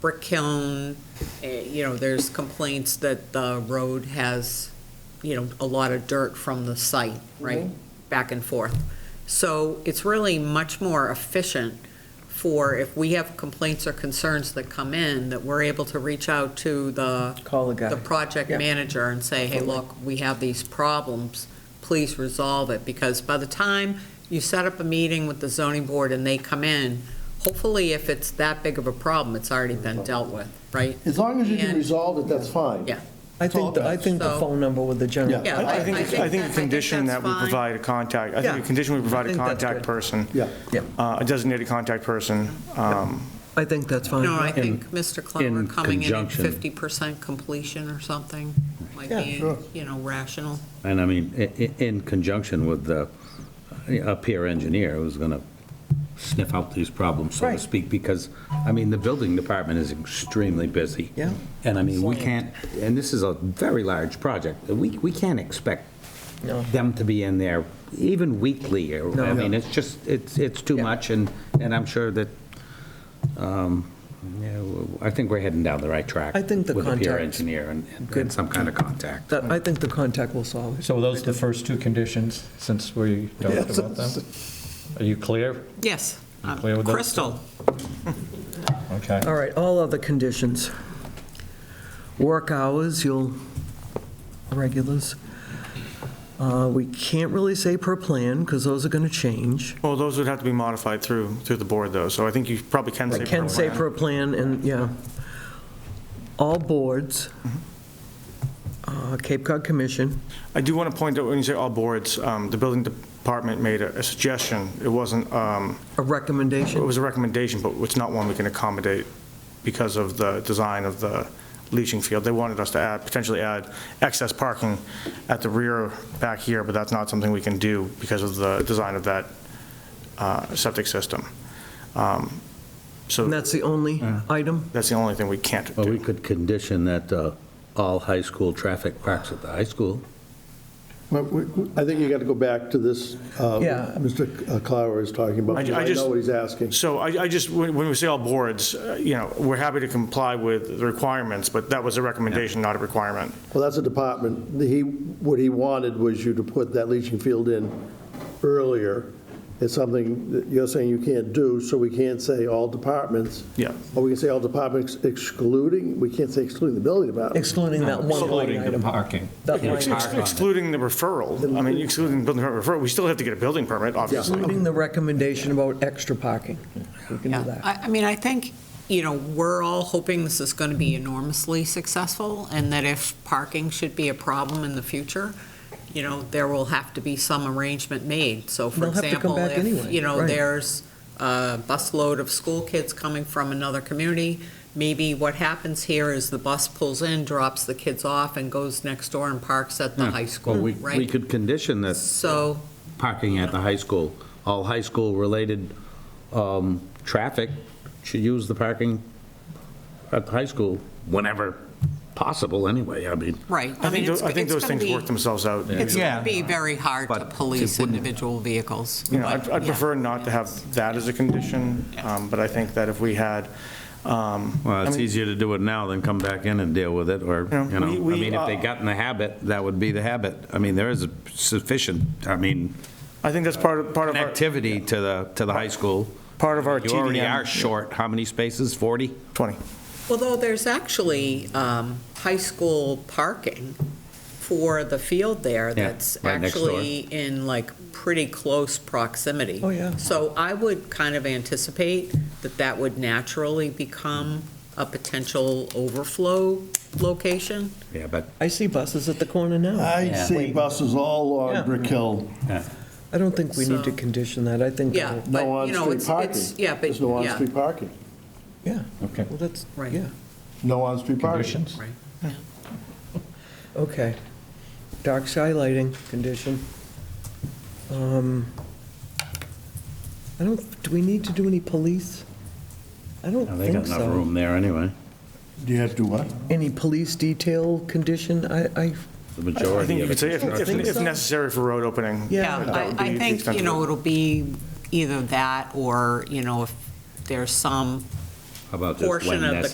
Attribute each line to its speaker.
Speaker 1: Brick Hill, eh, you know, there's complaints that the road has, you know, a lot of dirt from the site, right? Back and forth. So it's really much more efficient for if we have complaints or concerns that come in, that we're able to reach out to the
Speaker 2: Call the guy.
Speaker 1: the project
Speaker 2: Yeah.
Speaker 1: manager and say, hey, look, we have these problems, please resolve it, because by the time you set up a meeting with the zoning board and they come in, hopefully if it's that big of a problem, it's already been dealt with, right?
Speaker 3: As long as you can
Speaker 1: And-
Speaker 3: resolve it, that's fine.
Speaker 1: Yeah.
Speaker 2: I think, the- I think the
Speaker 1: So-
Speaker 2: phone number with the general.
Speaker 3: Yeah.
Speaker 1: Yeah,
Speaker 4: I I think, it's- I think
Speaker 1: that-
Speaker 4: the condition
Speaker 1: that's
Speaker 4: that we
Speaker 1: fine.
Speaker 4: provide a contact, I think
Speaker 2: Yeah.
Speaker 4: the condition we provide
Speaker 2: I
Speaker 4: a
Speaker 2: think that's
Speaker 4: contact
Speaker 2: good.
Speaker 4: person.
Speaker 3: Yeah.
Speaker 2: Yeah.
Speaker 4: uh, A designated contact person. um,
Speaker 2: I think that's fine.
Speaker 1: No, I
Speaker 2: Yeah.
Speaker 1: think Mr. Clower
Speaker 5: in
Speaker 1: coming in at
Speaker 5: conjunction.
Speaker 1: 50% completion or something might
Speaker 2: Yeah,
Speaker 1: be,
Speaker 3: sure.
Speaker 1: you know, rational.
Speaker 5: And I mean, i- i- in conjunction with the, a peer engineer who's going to sniff out these problems, so to
Speaker 2: Right.
Speaker 5: speak, because, I mean, the building department is extremely busy.
Speaker 2: Yeah.
Speaker 5: And I mean, we can't, and this is a very large project, we, we can't expect
Speaker 2: No.
Speaker 5: them to be in there even weekly, or, I
Speaker 2: No.
Speaker 5: mean, it's just, it's, it's too
Speaker 2: Yeah.
Speaker 5: much, and, and I'm sure that, um, yeah, w- I think we're heading down the right track.
Speaker 2: I think the
Speaker 5: With a peer
Speaker 2: contact's
Speaker 5: engineer and- and
Speaker 2: good.
Speaker 5: and some kind of contact.
Speaker 2: That, I think the contact will solve it.
Speaker 6: So those are the first two conditions, since we talked about them? Are you clear?
Speaker 1: Yes. uh,
Speaker 6: You clear with those?
Speaker 1: Crystal,
Speaker 6: Okay.
Speaker 2: All right, all other conditions. Work hours, you'll, regulars. Uh, We can't really say per plan, because those are going to change.
Speaker 4: Well, those would have to be modified through, through the board, though, so I think you probably can say.
Speaker 2: I can say
Speaker 4: plan.
Speaker 2: per plan, and, yeah. All boards, uh, Cape Cod Commission,
Speaker 4: I do want to point out, when you say all boards, um, the building department made a a suggestion. It wasn't, um,
Speaker 2: a
Speaker 4: it
Speaker 2: recommendation.
Speaker 4: was a recommendation, but it's not one we can accommodate because of the design of the leaching field. They wanted us to add, potentially add excess parking at the rear back here, but that's not something we can do because of the design of that uh, septic system. Um, So
Speaker 2: And that's the only item?
Speaker 4: that's the only thing we can't
Speaker 5: Well, we
Speaker 4: do.
Speaker 5: could condition that uh, all high school traffic parks at the high school.
Speaker 3: Well, we- we- I think you got to go back to this, uh,
Speaker 2: Yeah.
Speaker 3: Mr. Clower is talking about,
Speaker 4: I ju-
Speaker 3: because
Speaker 4: I
Speaker 3: I
Speaker 4: just-
Speaker 3: know what he's asking.
Speaker 4: So I I just, when when we say all boards, uh, you know, we're happy to comply with the requirements, but that was a recommendation, not a requirement.
Speaker 3: Well, that's a department, The- he, what he wanted was you to put that leaching field in earlier. It's something that you're saying you can't do, so we can't say all departments.
Speaker 4: Yeah.
Speaker 3: Or we can say all departments excluding, we can't say excluding the building department.
Speaker 2: Excluding that one line
Speaker 6: Excluding the
Speaker 2: item.
Speaker 6: parking.
Speaker 2: That line
Speaker 5: Ex-
Speaker 2: item.
Speaker 5: Park on it.
Speaker 4: Excluding the referral, I mean, excluding the building permit referral, we still have to get a building permit, obviously.
Speaker 2: Including the recommendation about extra parking. We can do
Speaker 1: Yeah,
Speaker 2: that.
Speaker 1: I, I mean, I think, you know, we're all hoping this is going to be enormously successful, and that if parking should be a problem in the future, you know, there will have to be some arrangement made. So for
Speaker 2: They'll have to come
Speaker 1: example,
Speaker 2: back
Speaker 1: if,
Speaker 2: anyway,
Speaker 1: you know,
Speaker 2: right.
Speaker 1: there's a busload of school kids coming from another community, maybe what happens here is the bus pulls in, drops the kids off, and goes next door and parks at the high school,
Speaker 5: Well, we- We
Speaker 1: right?
Speaker 5: could condition that
Speaker 1: So,
Speaker 5: parking at the high school, all high school-related um, traffic should use the parking at the high school whenever possible, anyway, I mean.
Speaker 1: right.
Speaker 4: I think,
Speaker 1: mean,
Speaker 4: tho-
Speaker 1: it's-
Speaker 4: I think
Speaker 1: it's
Speaker 4: those
Speaker 1: gonna
Speaker 4: things
Speaker 1: be-
Speaker 4: work themselves out.
Speaker 1: It's going to
Speaker 6: Yeah.
Speaker 1: be very hard to
Speaker 5: But it
Speaker 1: police
Speaker 5: wouldn't-
Speaker 1: individual vehicles.
Speaker 4: You know, I'd
Speaker 1: but,
Speaker 4: I'd
Speaker 1: yeah.
Speaker 4: prefer not to have that as a condition, um, but I think that if we had, um,
Speaker 5: Well,
Speaker 4: I
Speaker 5: it's
Speaker 4: mean-
Speaker 5: easier to do it now than come back in and deal with it, or,
Speaker 4: Yeah,
Speaker 5: you know,
Speaker 4: we-
Speaker 5: I
Speaker 4: we,
Speaker 5: mean, if they
Speaker 4: uh,
Speaker 5: got in the habit, that would be the habit. I mean, there is a sufficient, I mean,
Speaker 4: I think that's part of, part of our,
Speaker 5: connectivity to the, to the high school.
Speaker 4: part of our
Speaker 5: You already
Speaker 4: TDM.
Speaker 5: are short, how many spaces, 40?
Speaker 4: 20.
Speaker 1: Although there's actually um, high school parking for the field there
Speaker 5: Yeah,
Speaker 1: that's
Speaker 5: right next door.
Speaker 1: actually in like pretty close proximity.
Speaker 2: Oh, yeah.
Speaker 1: So I would kind of anticipate that that would naturally become a potential overflow location.
Speaker 5: Yeah, but
Speaker 2: I see buses at the corner
Speaker 5: Uh,
Speaker 2: now.
Speaker 3: I see buses all
Speaker 2: Yeah.
Speaker 3: on Brick Hill.
Speaker 2: I don't think we need to
Speaker 1: So-
Speaker 2: condition that. I think,
Speaker 1: Yeah,
Speaker 2: that'll-
Speaker 1: but,
Speaker 3: No
Speaker 1: you know,
Speaker 3: on-street
Speaker 1: it's,
Speaker 3: parking.
Speaker 1: it's, yeah, but,
Speaker 3: There's no
Speaker 1: yeah,
Speaker 3: on-street parking.
Speaker 2: yeah.
Speaker 6: Okay.
Speaker 2: Well, that's,
Speaker 1: Right.
Speaker 2: yeah,
Speaker 3: No on-street parking.
Speaker 6: Conditions?
Speaker 1: right.
Speaker 2: okay. Dark sky lighting condition. Um, I don't, do we need to do any police? I don't
Speaker 5: no, they got
Speaker 2: think so.
Speaker 5: enough room there anyway,
Speaker 3: Do you have to do what?
Speaker 2: Any police detail condition? I, I,
Speaker 5: the
Speaker 4: I
Speaker 5: majority
Speaker 4: think you
Speaker 5: of
Speaker 4: could say,
Speaker 5: it.
Speaker 4: if- if
Speaker 2: Think
Speaker 4: if
Speaker 2: so?
Speaker 4: necessary for road opening.
Speaker 2: Yeah.
Speaker 1: Yeah,
Speaker 4: that would
Speaker 1: I,
Speaker 4: be
Speaker 1: I
Speaker 4: the
Speaker 1: think,
Speaker 4: extent
Speaker 1: you
Speaker 4: of
Speaker 1: know,
Speaker 4: it.
Speaker 1: it'll be either that or, you know, if there's some
Speaker 5: How about just
Speaker 1: portion
Speaker 5: when
Speaker 1: of the